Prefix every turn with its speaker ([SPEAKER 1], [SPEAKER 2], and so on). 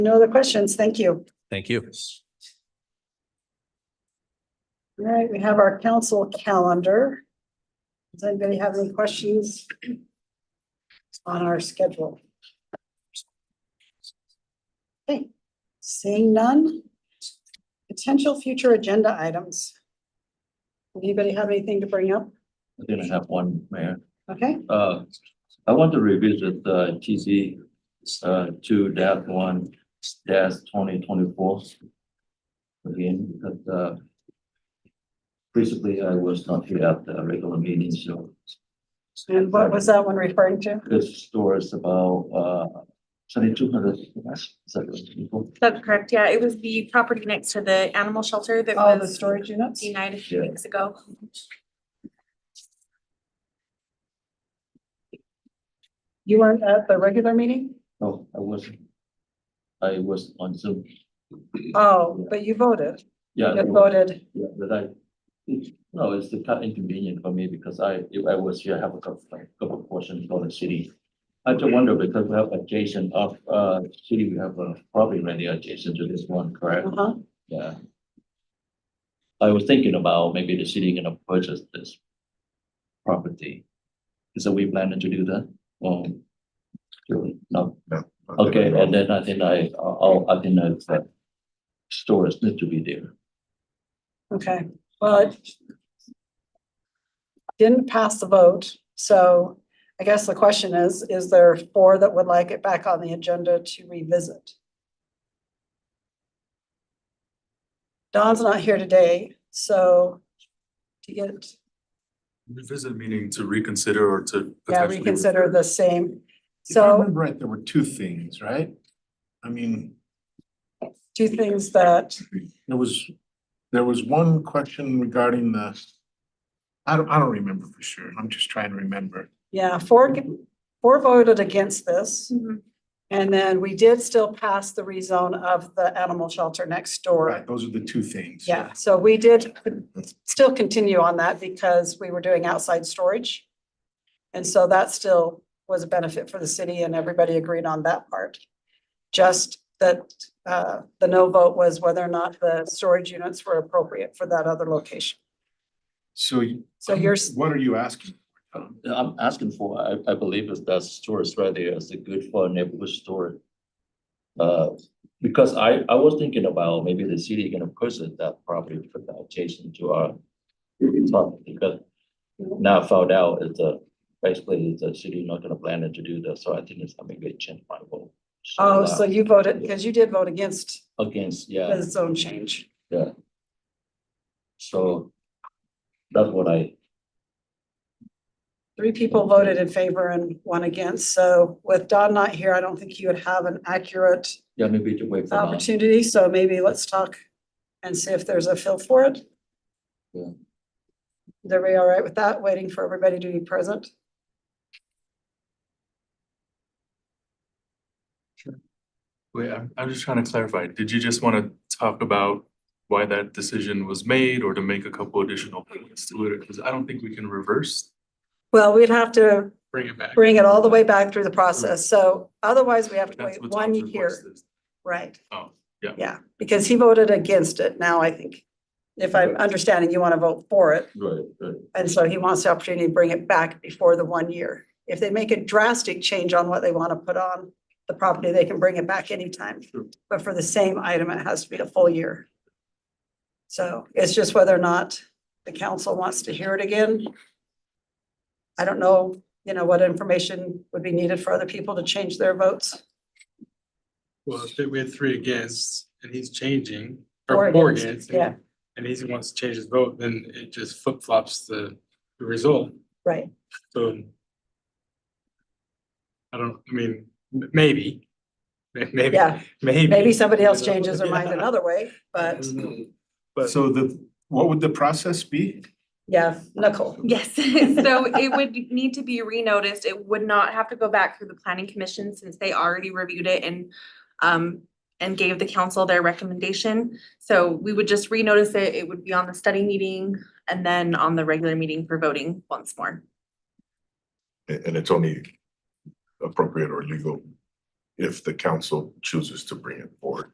[SPEAKER 1] No other questions. Thank you.
[SPEAKER 2] Thank you.
[SPEAKER 1] All right, we have our council calendar. Does anybody have any questions on our schedule? Okay, seeing none. Potential future agenda items. Anybody have anything to bring up?
[SPEAKER 3] I'm gonna have one, Mayor.
[SPEAKER 1] Okay,
[SPEAKER 3] Uh, I want to revisit the TZ uh two dash one dash twenty twenty four. Again, because uh recently I was not here at the regular meeting, so
[SPEAKER 1] and what was that one referring to?
[SPEAKER 3] this store is about uh seventy two hundred.
[SPEAKER 4] That's correct, yeah, it was the property next to the animal shelter that
[SPEAKER 1] All Oh, the
[SPEAKER 4] was
[SPEAKER 1] storage units?
[SPEAKER 4] denied a few
[SPEAKER 3] Yeah.
[SPEAKER 4] weeks ago.
[SPEAKER 1] You weren't at the regular meeting?
[SPEAKER 3] No, I was I was on Zoom.
[SPEAKER 1] Oh, but you voted.
[SPEAKER 3] Yeah.
[SPEAKER 1] You
[SPEAKER 3] it was-
[SPEAKER 1] voted.
[SPEAKER 3] Yeah, but I, it- no, it's kind inconvenient for me because I, if I was here, I have a couple, like, couple of questions for the city. I just wonder because we have adjacent of, uh, city, we have a property right there adjacent to this one, correct?
[SPEAKER 1] Uh-huh.
[SPEAKER 3] Yeah. I was thinking about maybe the city gonna purchase this property. Is that we planning to do that? Um, no, okay, and then I think I, I'll, I think that that stores need to be there.
[SPEAKER 1] Okay, well, it didn't pass the vote, so I guess the question is, is there four that would like it back on the agenda to revisit? Don's not here today, so to get,
[SPEAKER 5] Revisit meaning to reconsider or to.
[SPEAKER 1] yeah,
[SPEAKER 5] potentially-
[SPEAKER 1] reconsider the same.
[SPEAKER 6] If I
[SPEAKER 1] So
[SPEAKER 6] remember right, there were two things, right? I mean,
[SPEAKER 1] two things that,
[SPEAKER 6] there was, there was one question regarding the. I don't, I don't remember for sure. I'm just trying to remember.
[SPEAKER 1] yeah, four, four voted against this.
[SPEAKER 4] Mhm.
[SPEAKER 1] And then we did still pass the rezone of the animal shelter next door.
[SPEAKER 6] Right, those are the two things.
[SPEAKER 1] Yeah, so we did still continue on that because we were doing outside storage. And so that still was a benefit for the city and everybody agreed on that part. Just that uh the no vote was whether or not the storage units were appropriate for that other location.
[SPEAKER 6] Um, So. you-
[SPEAKER 1] So yours,
[SPEAKER 6] What are you asking? Tom?
[SPEAKER 3] I'm asking for, I, I believe is that stores right there is a good for a neighborhood store. Uh, because I, I was thinking about maybe the city gonna purchase that property for the adjacent to our property, because now I found out it's a, basically the city not gonna plan it to do that, so I think it's, I maybe it changed my vote. So,
[SPEAKER 1] oh,
[SPEAKER 3] uh,
[SPEAKER 1] so you voted, because you did vote against
[SPEAKER 3] Against, yeah,
[SPEAKER 1] the zone change.
[SPEAKER 3] so that's what I,
[SPEAKER 1] Three people voted in favor and one against. So with Don not here, I don't think you would have an accurate
[SPEAKER 3] yeah, maybe to wait for now.
[SPEAKER 1] opportunity, so maybe let's talk and see if there's a fill for it.
[SPEAKER 3] Yeah.
[SPEAKER 1] Is everybody all right with that, waiting for everybody to be present?
[SPEAKER 5] Wait, I'm, I'm just trying to clarify. Did you just want to talk about why that decision was made or to make a couple additional points to it? Because I don't think we can reverse,
[SPEAKER 1] Well, we'd have to
[SPEAKER 5] bring it back.
[SPEAKER 1] bring it all the way back through the process, so otherwise we have to
[SPEAKER 5] That's
[SPEAKER 1] wait
[SPEAKER 5] what
[SPEAKER 1] one
[SPEAKER 5] Tom's
[SPEAKER 1] year,
[SPEAKER 5] request is.
[SPEAKER 1] right?
[SPEAKER 5] Oh, yeah.
[SPEAKER 1] Yeah, because he voted against it, now I think, if I'm understanding, you want to vote for it,
[SPEAKER 3] Right, right.
[SPEAKER 1] and so he wants the opportunity to bring it back before the one year. If they make a drastic change on what they want to put on the property, they can bring it back anytime.
[SPEAKER 5] Sure.
[SPEAKER 1] But for the same item, it has to be a full year. So it's just whether or not the council wants to hear it again. I don't know, you know, what information would be needed for other people to change their votes.
[SPEAKER 7] Well, if we had three against and he's changing,
[SPEAKER 1] Four
[SPEAKER 7] or four
[SPEAKER 1] against,
[SPEAKER 7] against.
[SPEAKER 1] yeah.
[SPEAKER 7] and- And he wants to change his vote, then it just flip flops the the result,
[SPEAKER 1] Right.
[SPEAKER 7] so. I don't, I mean, m- maybe, may- maybe,
[SPEAKER 1] Yeah,
[SPEAKER 7] maybe.
[SPEAKER 1] maybe somebody else changes their mind another way, but
[SPEAKER 7] But
[SPEAKER 6] So the, what would the process be?
[SPEAKER 1] yeah, Nicole.
[SPEAKER 4] Yes, so it would need to be renoticed, it would not have to go back through the planning commission since they already reviewed it and um and gave the council their recommendation, so we would just renotice it, it would be on the study meeting and then on the regular meeting for voting once more.
[SPEAKER 8] And, and it's only appropriate or legal if the council chooses to bring it forward.